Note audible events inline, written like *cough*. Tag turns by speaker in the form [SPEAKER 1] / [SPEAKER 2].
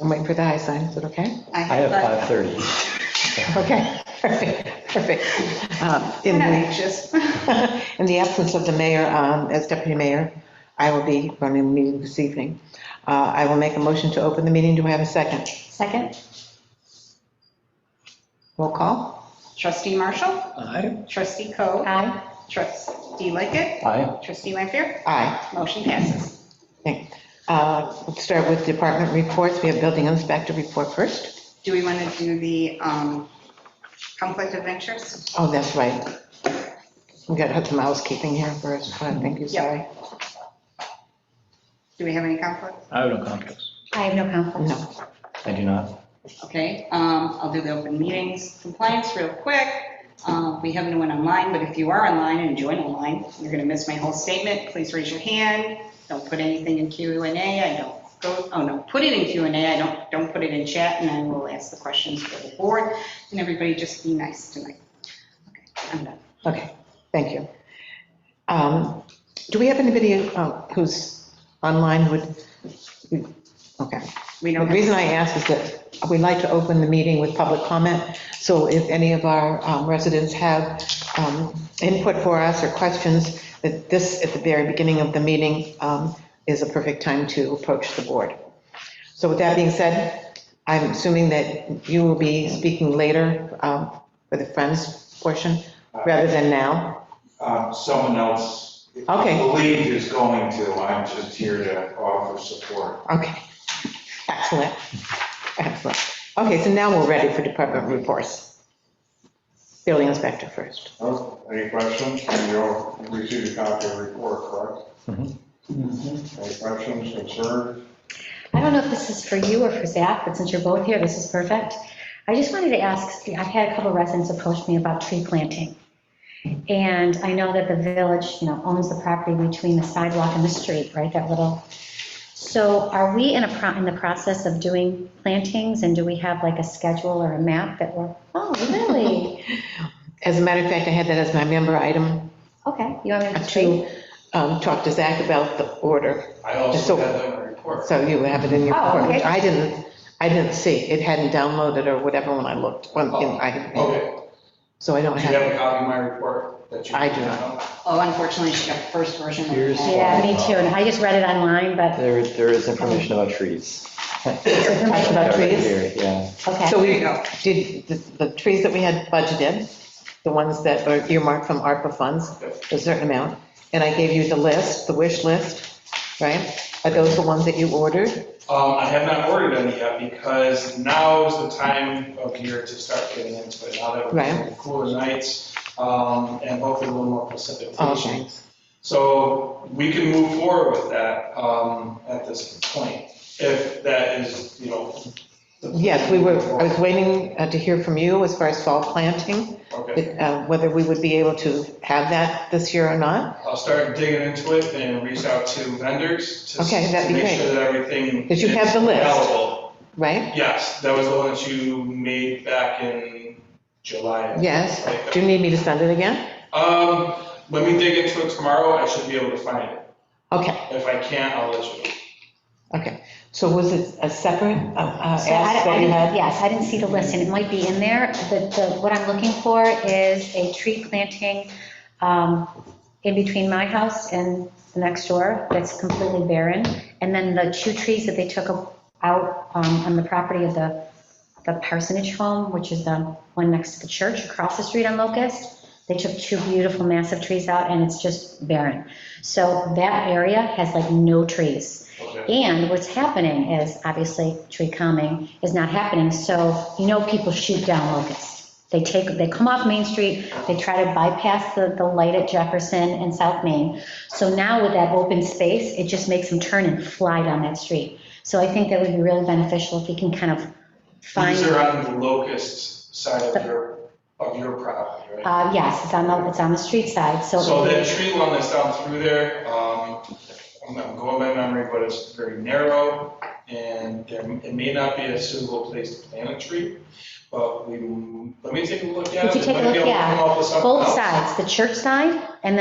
[SPEAKER 1] I'm waiting for the high sign, is it okay?
[SPEAKER 2] I have
[SPEAKER 3] five.
[SPEAKER 2] 5:30.
[SPEAKER 1] Okay, *laughs* perfect, perfect. Um, In
[SPEAKER 3] I'm not
[SPEAKER 1] the,
[SPEAKER 3] anxious. *laughs*
[SPEAKER 1] in the *laughs* absence of the mayor, um, as deputy mayor, I will be running the meeting this evening. Uh, I will make a motion to open the meeting, do I have a second?
[SPEAKER 3] Second,
[SPEAKER 1] Roll call?
[SPEAKER 3] trustee Marshall,
[SPEAKER 2] Aye.
[SPEAKER 3] trustee Coe. Aye. Trustee Lickett,
[SPEAKER 2] Aye.
[SPEAKER 3] trustee Lampier,
[SPEAKER 1] Aye.
[SPEAKER 3] motion passes.
[SPEAKER 1] Okay. Uh, Let's start with department reports, we have building inspector report first.
[SPEAKER 3] Do we want to do the um, conflict of interest?
[SPEAKER 1] Oh, that's right. We got to have some housekeeping here first, thank you, sorry.
[SPEAKER 3] Do we have any conflict?
[SPEAKER 2] I have no conflicts.
[SPEAKER 4] I have no conflicts.
[SPEAKER 1] No,
[SPEAKER 2] I do not.
[SPEAKER 3] Okay, um, I'll do the open meetings compliance real quick. Uh, We have no one online, but if you are online and join online, you're going to miss my whole statement. Please raise your hand. Don't put anything in Q and A. I don't go, oh no, put it in Q and A. I don't, don't put it in chat and I will ask the questions for the board. And everybody just be nice tonight. Okay, I'm done.
[SPEAKER 1] okay, thank you. Um, Do we have anybody uh, who's online who would, okay.
[SPEAKER 3] We
[SPEAKER 1] The
[SPEAKER 3] don't, have-
[SPEAKER 1] reason I ask is that we like to open the meeting with public comment, so if any of our um, residents have um, input for us or questions, that this, at the very beginning of the meeting, um, is a perfect time to approach the board. So with that being said, I'm assuming that you will be speaking later um, for the Friends portion, rather than now?
[SPEAKER 5] Um, Someone else.
[SPEAKER 1] Okay.
[SPEAKER 5] I believe is going to, I'm just here to offer support.
[SPEAKER 1] Okay, excellent, excellent. Okay, so now we're ready for department reports. Building inspector first.
[SPEAKER 5] Oh, Any questions? And You'll receive a copy of the report, correct?
[SPEAKER 1] Mm-hmm.
[SPEAKER 5] Mm-hmm. Any questions, concerns?
[SPEAKER 4] I don't know if this is for you or for Zach, but since you're both here, this is perfect. I just wanted to ask, I've had a couple residents approach me about tree planting. And I know that the village, you know, owns the property between the sidewalk and the street, right, that little. So are we in a, pro- in the process of doing plantings and do we have like a schedule or a map that we're,
[SPEAKER 1] *laughs*
[SPEAKER 4] oh, really?
[SPEAKER 1] As a matter of fact, I had that as my member item
[SPEAKER 4] Okay, you want me to?
[SPEAKER 1] to um, talk to Zach about the order.
[SPEAKER 6] I
[SPEAKER 1] So-
[SPEAKER 6] also got that report.
[SPEAKER 1] So you have it in your
[SPEAKER 4] Oh,
[SPEAKER 1] report, which
[SPEAKER 4] okay.
[SPEAKER 1] I didn't, I didn't see. It hadn't downloaded or whatever when I looked, when
[SPEAKER 6] Oh,
[SPEAKER 1] I,
[SPEAKER 6] Okay,
[SPEAKER 1] so I don't
[SPEAKER 6] do you have
[SPEAKER 1] have.
[SPEAKER 6] a copy of my report that you?
[SPEAKER 1] I do
[SPEAKER 3] oh, unfortunately, she got the first version. of
[SPEAKER 2] Here's-
[SPEAKER 3] that.
[SPEAKER 4] Yeah, me too, and I just read it online, but,
[SPEAKER 2] There, there is information about trees.
[SPEAKER 1] Talk about trees.
[SPEAKER 2] Here, Yeah.
[SPEAKER 4] okay.
[SPEAKER 1] So
[SPEAKER 3] There
[SPEAKER 1] we
[SPEAKER 3] you go.
[SPEAKER 1] did, the- the trees that we had budgeted, the ones that are earmarked from ARPA funds, a certain amount. And I gave you the list, the wish list, right? Are those the ones that you ordered?
[SPEAKER 6] Um, I have not ordered any yet because now is the time of year to start getting into it. Now that
[SPEAKER 1] Right.
[SPEAKER 6] we're cooler nights, um, and hopefully a little more precipitation.
[SPEAKER 1] Okay,
[SPEAKER 6] So we can move forward with that, um, at this point, if that is, you know. the-
[SPEAKER 1] Yes, we were, I was waiting uh, to hear from you as far as fall planting,
[SPEAKER 6] Okay,
[SPEAKER 1] but, uh, whether we would be able to have that this year or not.
[SPEAKER 6] I'll start digging into it and reach out to vendors to. s-
[SPEAKER 1] Okay, that'd be
[SPEAKER 6] to Make
[SPEAKER 1] great.
[SPEAKER 6] sure that everything.
[SPEAKER 1] Did you have
[SPEAKER 6] is
[SPEAKER 1] the list?
[SPEAKER 6] Available.
[SPEAKER 1] Right?
[SPEAKER 6] Yes, that was the one that you made back in July.
[SPEAKER 1] Yes. Do you need me to send it again?
[SPEAKER 6] Um, let me dig into it tomorrow, I should be able to find it.
[SPEAKER 1] Okay,
[SPEAKER 6] If I can't, I'll let you know.
[SPEAKER 1] okay. So was it a separate uh, uh, ask
[SPEAKER 4] So I- I
[SPEAKER 1] that you
[SPEAKER 4] didn't-
[SPEAKER 1] had?
[SPEAKER 4] Yes, I didn't see the list, and it might be in there. The, the, what I'm looking for is a tree planting um, in between my house and the next door that's completely barren. And then the two trees that they took out um, on the property of the, the parsonage home, which is the one next to the church across the street on Locust. They took two beautiful massive trees out and it's just barren. So that area has like no trees.
[SPEAKER 6] Okay.
[SPEAKER 4] And what's happening is, obviously, tree calming is not happening, so you know people shoot down locusts. They take, they come off Main Street, they try to bypass the, the light at Jefferson and South Main. So now with that open space, it just makes them turn and fly down that street. So I think that would be really beneficial if we can kind of
[SPEAKER 6] These are
[SPEAKER 4] find,
[SPEAKER 6] on the locust side of your, of your property, right?
[SPEAKER 4] uh, yes, it's on the, it's on the street side, so.
[SPEAKER 6] So that tree line that's down through there, um, I'm not going by memory, but it's very narrow, and there- it may not be a suitable place to plant a tree, but we, let me take a look at it.
[SPEAKER 4] If you take a
[SPEAKER 6] Might be able
[SPEAKER 4] look,
[SPEAKER 6] to
[SPEAKER 4] yeah,
[SPEAKER 6] come up with something
[SPEAKER 4] Both
[SPEAKER 6] else.
[SPEAKER 4] sides, the church side and